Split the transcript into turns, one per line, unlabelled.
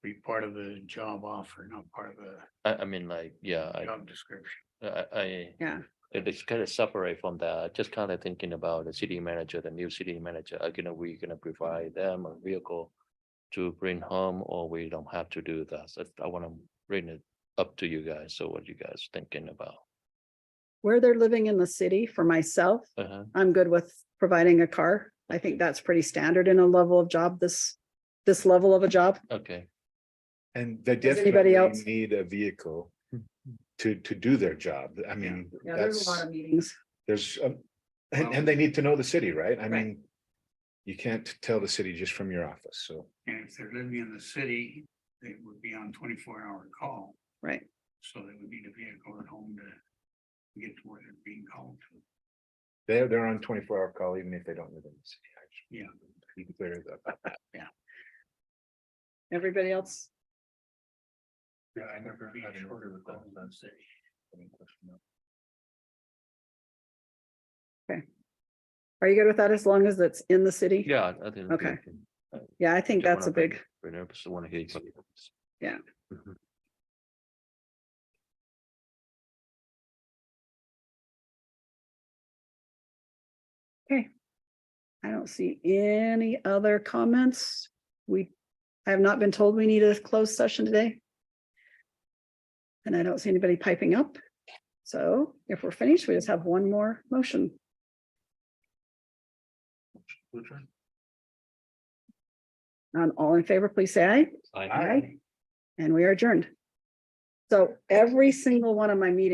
part of the job offer, not part of the
I, I mean, like, yeah, I,
job description.
I, I.
Yeah.
It is kind of separate from that, just kind of thinking about the city manager, the new city manager, are gonna, we gonna
Mm-hmm.
provide them a vehicle. To bring home, or we don't have to do that, so I wanna bring it up to you guys, so what you guys thinking about?
Where they're living in the city, for myself,
Uh-huh,
I'm good with providing a car. I think that's pretty standard in a level of job, this, this level of a job.
okay,
And they
Does anybody
definitely
else-
need a vehicle to, to do their job. I mean,
Yeah, there's
that's,
a lot of meetings.
there's, um, and, and they need to know the city, right? I
Right.
mean, you can't tell the city just from your office, so.
And if they're living in the city, they would be on twenty-four hour call,
Right.
so they would need a vehicle at home to get to where they're being called to.
They're, they're on twenty-four hour call even if they don't live in the city. actually.
Yeah.
Be clear about that.
Everybody else?
Yeah, I never. Be shorter than that, let's say.
Are you good with that as long as it's in the city?
yeah. I think
Okay. Yeah, I think that's a big,
I just wanna hear. you.
Yeah.
Mhm.
I don't see any other comments. We, I have not been told we need a closed session today. And I don't see anybody piping up. So if we're finished, we just have one more motion. Um, all in favor, please say aye.
I-
Aye.
And we are adjourned. So every single one of my meetings.